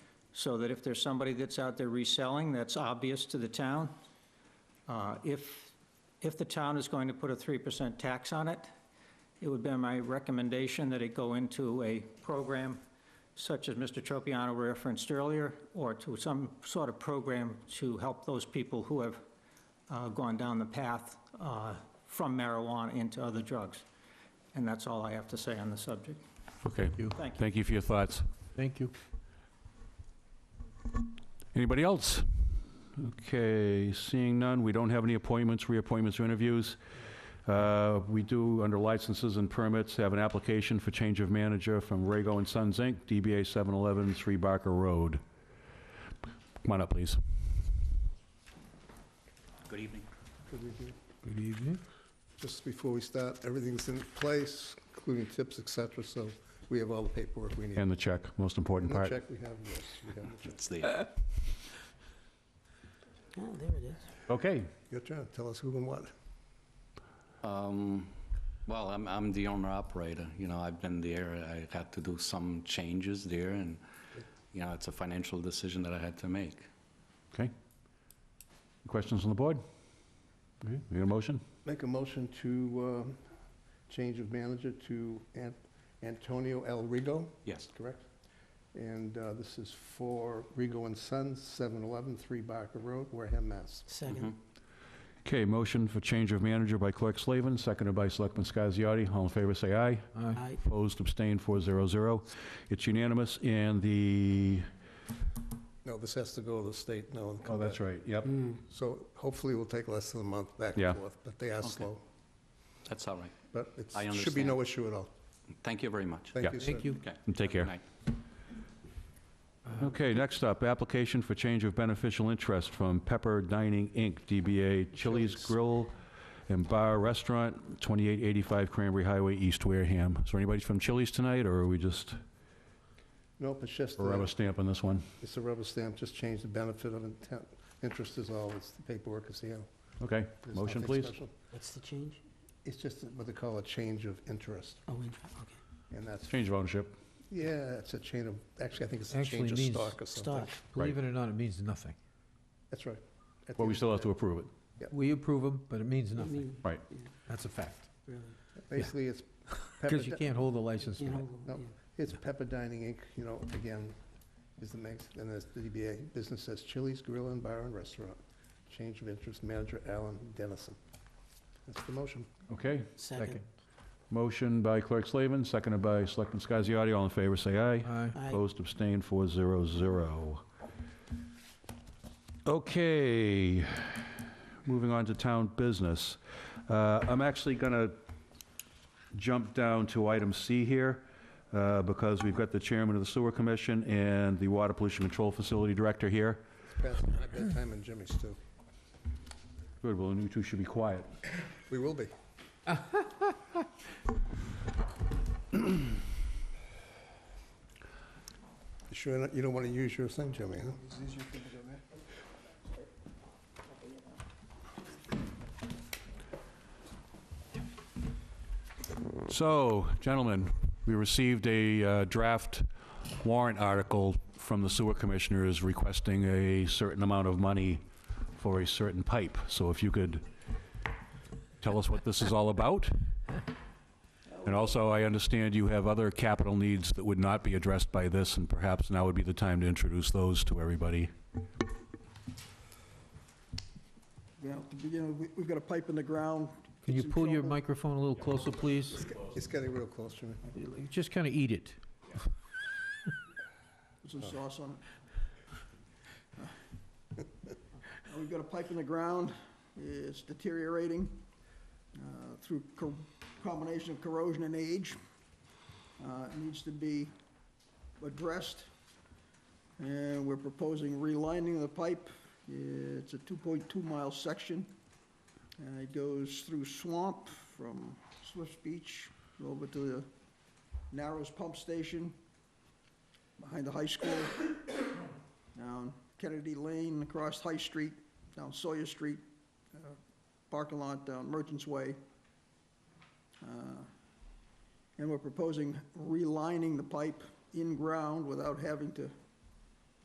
so that if there's somebody that's out there reselling, that's obvious to the town. Uh, If, if the town is going to put a 3% tax on it, it would be my recommendation that it go into a program such as Mr. Tropiano referenced earlier, or to some sort of program to help those people who have uh, gone down the path uh, from marijuana into other drugs. And that's all I have to say on the subject. Okay, Thank you. thank you for your thoughts. Thank you. Anybody else? Okay, seeing none, we don't have any appointments, reappointments, or interviews. Uh, We do, under licenses and permits, have an application for change of manager from Rago and Sons, Inc., DBA 711, 3 Barker Road. Come on up, please. Good evening. Good evening. Just before we start, everything's in place, including tips, et cetera, so we have all the paperwork we need. And the check, most important And part. the check we have, yes, we have the check. It's the, Oh, there it is. Okay, Your turn, tell us who and what. um, well, I'm, I'm the owner operator, you know, I've been there, I had to do some changes there and, you know, it's a financial decision that I had to make. okay. Questions on the board? Okay, We got a motion? Make a motion to um, change of manager to An- Antonio El Rigo, Yes, correct? And uh, this is for Rigo and Sons, 711 Three Barker Road, Wareham, Mass. Second. Okay, motion for change of manager by Clerk Slavin, seconded by Selectman Scasiotti. All in favor, say aye. Aye. Opposed, abstained, 400. It's unanimous, and the... No, this has to go to the state, no. and come back. Oh, right, yep. Mm. So hopefully we'll take less than a month back Yeah. and forth, but they are Okay. slow. that's all right. But I it should be no issue at all. Thank you very much. Yeah. Thank you, sir. Thank you. Okay. And take care. Good night. Okay, next up, application for change of beneficial interest from Pepper Dining, Inc., DBA Chili's Chili's. Grill and Bar Restaurant, 2885 Cranberry Highway, East Wareham. Is there anybody from Chili's tonight, or are we just Nope, it's just, a rubber uh, stamp on this one? it's a rubber stamp, just change the benefit of intent, interest is all, it's the paperwork is here. Okay, There's motion, nothing please. special. What's the change? It's just what they call a change of interest, Oh, in- okay. and that's, Change of ownership. yeah, it's a chain of, actually, I think it's a Actually change of means stock or something. Stock. Believe it or not, it means nothing. That's right. At Well, we the end still of have to the approve it. We approve them, but it means I nothing. mean, Right. yeah, That's a fact. Really. day. Basically, it's Pepper, Because you can't hold the license You plate. know, No. yeah. it's Pepper Dining Inc., you know, again, is the makes, and there's the DBA, business says Chili's Grill and Bar and Restaurant. Change of interest, manager Alan Dennison. That's the motion. Okay. Second. Motion by Clerk Slavin, seconded by Selectman Scasiotti. All in favor, say aye. Aye. Aye. Opposed, abstained, 400. Okay, moving on to town business. Uh, I'm actually going to jump down to item C here, uh, because we've got the chairman of the sewer commission and the water pollution control facility director here. It's past my bedtime and Jimmy's too. Good, well, you two should be quiet. We will be. You sure not- you don't want to use your thing, Jimmy, huh? So, gentlemen, we received a uh, draft warrant article from the sewer commissioners requesting a certain amount of money for a certain pipe. So if you could tell us what this is all about? And also, I understand you have other capital needs that would not be addressed by this, and perhaps now would be the time to introduce those to everybody. Yeah, to begin, with, we've got a pipe in the ground. Can you Some pull your trouble. microphone a little closer, please? It's getting real close, Jimmy. Just kind of eat it. Put some sauce on it. Uh, We've got a pipe in the ground, it's deteriorating uh, through co- combination of corrosion and age. Uh, It needs to be addressed, and we're proposing relining the pipe. It's a 2.2 mile section, and it goes through swamp from Swift's Beach over to the Narrows Pump Station, behind the high school, down Kennedy Lane, across High Street, down Sawyer Street, uh, parking lot down Merchants Way. Uh, And we're proposing relining the pipe in ground without having to